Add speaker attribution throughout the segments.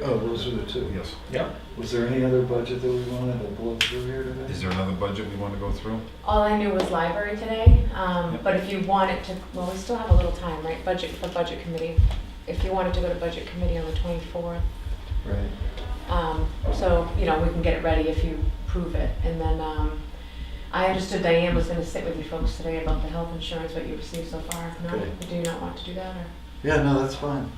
Speaker 1: Oh, those are the two.
Speaker 2: Yes.
Speaker 3: Yep.
Speaker 1: Was there any other budget that we wanted to blow through here
Speaker 2: Is
Speaker 1: today?
Speaker 2: there another budget we want to go through?
Speaker 4: All I knew was library today, um,
Speaker 2: Yep.
Speaker 4: but if you wanted to, well, we still have a little time, right, budget, for budget committee. If you wanted to go to budget committee on the twenty-fourth,
Speaker 1: Right.
Speaker 4: um, so, you know, we can get it ready if you prove it. And then, um, I understood Diane was gonna sit with you folks today about the health insurance, what you received so far. No,
Speaker 1: Okay.
Speaker 4: do you not want to do that, or?
Speaker 1: Yeah, no, that's fine.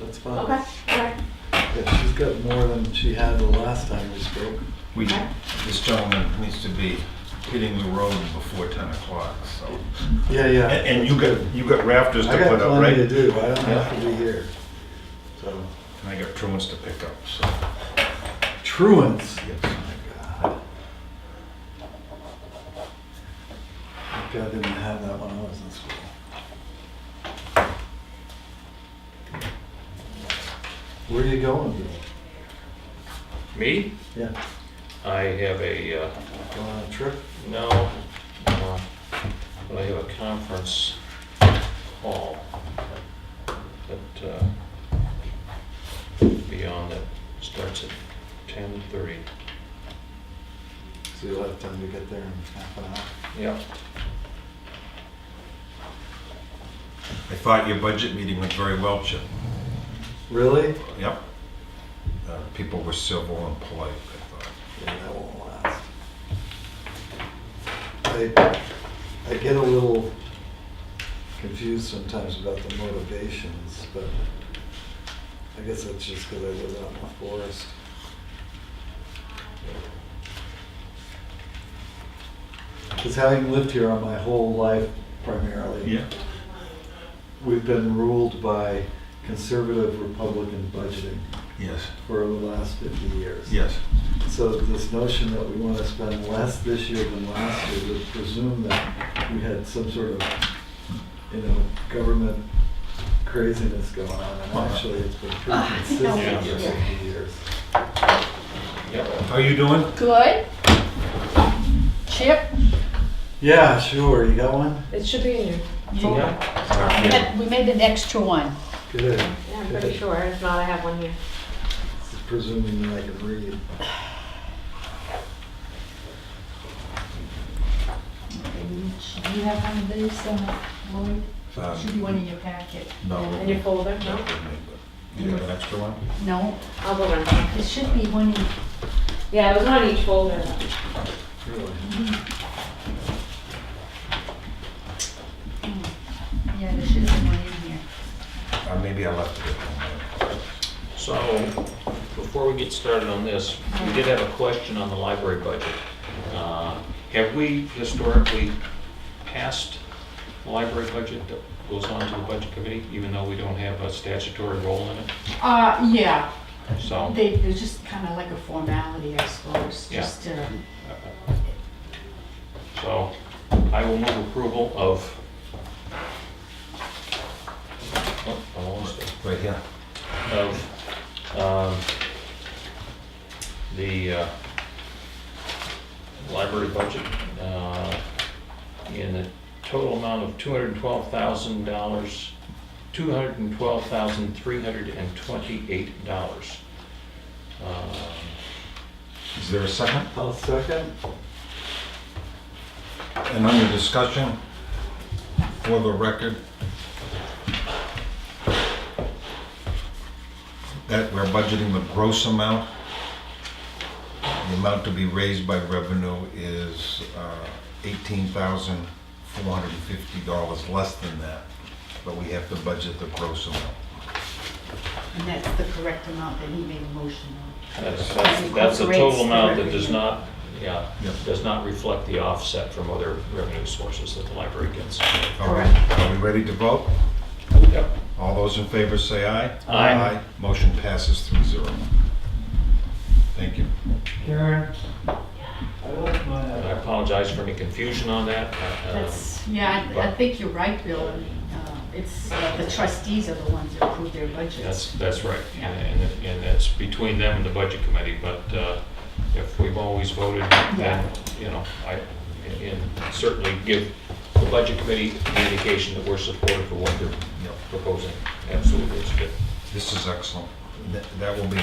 Speaker 1: That's
Speaker 2: Um,
Speaker 1: fine.
Speaker 4: Okay, all right.
Speaker 1: Yeah, she's got more than she had the last time we spoke.
Speaker 2: We,
Speaker 4: Okay.
Speaker 2: this gentleman needs to be hitting the road before 10 o'clock, so.
Speaker 1: Yeah, yeah.
Speaker 2: And and you got, you got rafters to
Speaker 1: I
Speaker 2: put
Speaker 1: got
Speaker 2: up, right?
Speaker 1: plenty to do. I don't have to be here. So,
Speaker 2: And I got truants to pick up, so.
Speaker 1: truants.
Speaker 2: yes.
Speaker 1: God. Thank God I didn't have that when I was in school. Where are you going, Bill?
Speaker 3: Me?
Speaker 1: Yeah,
Speaker 3: I have a, uh,
Speaker 1: going on a trip?
Speaker 3: no, uh, but I have a conference call. That, uh, beyond that, starts at ten thirty.
Speaker 1: So you'll have time to get there in half an hour.
Speaker 3: Yeah.
Speaker 2: I thought your budget meeting went very well, Chip.
Speaker 1: Really?
Speaker 2: Yep. Uh, People were civil and polite, I thought.
Speaker 1: Yeah, that won't last. I, I get a little confused sometimes about the motivations, but I guess that's just because I live out in the forest. Because having lived here all my whole life primarily. We've been ruled by conservative Republican budgeting
Speaker 2: Yes,
Speaker 1: for the last 50 years.
Speaker 2: yes.
Speaker 1: So this notion that we want to spend less this year than last year would presume that we had some sort of, you know, government craziness going on. And actually, it's been pretty
Speaker 3: Ah, Yeah.
Speaker 1: consistent for 50 years.
Speaker 3: Yep.
Speaker 2: How you doing?
Speaker 4: Good. Chip?
Speaker 1: Yeah, sure. You got one?
Speaker 4: It should be in your,
Speaker 3: Yeah.
Speaker 5: We had- we made an extra one.
Speaker 1: Good.
Speaker 4: yeah, I'm pretty sure, if not, I have one here.
Speaker 1: Presuming that I can read.
Speaker 5: Do you have one of these, uh, Lloyd?
Speaker 2: Um,
Speaker 5: Should be one in your packet.
Speaker 2: No.
Speaker 4: In your folder, no?
Speaker 2: You have an extra one?
Speaker 5: No,
Speaker 4: I'll go run some.
Speaker 5: it should be one in,
Speaker 4: Yeah, it was on each folder.
Speaker 1: Really?
Speaker 5: yeah, there should be one in here.
Speaker 2: Uh, Maybe I left it at home.
Speaker 3: So, before we get started on this, we did have a question on the library budget. Uh, Have we historically passed the library budget that goes on to the budget committee, even though we don't have a statutory role in it?
Speaker 5: Uh, yeah,
Speaker 3: So,
Speaker 5: they, they're just kind of like a formality, I suppose,
Speaker 3: Yeah.
Speaker 5: just, uh,
Speaker 3: so I will move approval of, oh, I lost it,
Speaker 2: Right here.
Speaker 3: of um, the uh, library budget uh, in a total amount of $212,000, $212,328. Um,
Speaker 2: Is there a second?
Speaker 1: I'll second.
Speaker 2: And under discussion, for the record, that we're budgeting the gross amount. The amount to be raised by revenue is uh, $18,450, less than that. But we have to budget the gross amount.
Speaker 5: and that's the correct amount that he made a motion on.
Speaker 3: That's, that's that's the total
Speaker 5: Incorporates
Speaker 3: amount that
Speaker 5: everything.
Speaker 3: does not, yeah,
Speaker 2: Yep.
Speaker 3: does not reflect the offset from other revenue sources that the library gets.
Speaker 2: All right, are we ready to vote?
Speaker 3: Yep.
Speaker 2: All those in favor say aye.
Speaker 3: Aye.
Speaker 2: Motion passes three zero. Thank you.
Speaker 1: Karen? I like
Speaker 3: And I
Speaker 1: my.
Speaker 3: apologize for any confusion on that. uh,
Speaker 5: That's, yeah, I, I think you're right, Bill, I mean, uh, it's, uh, the trustees are the ones that approve their
Speaker 3: That's,
Speaker 5: budgets.
Speaker 3: that's right,
Speaker 5: Yeah.
Speaker 3: and, and- and that's between them and the budget committee, but uh, if we've always voted, then, you know, I, and certainly give the budget committee the indication that we're supportive of what they're
Speaker 2: Yep.
Speaker 3: proposing, absolutely, it's good.
Speaker 2: This is excellent. That- That will be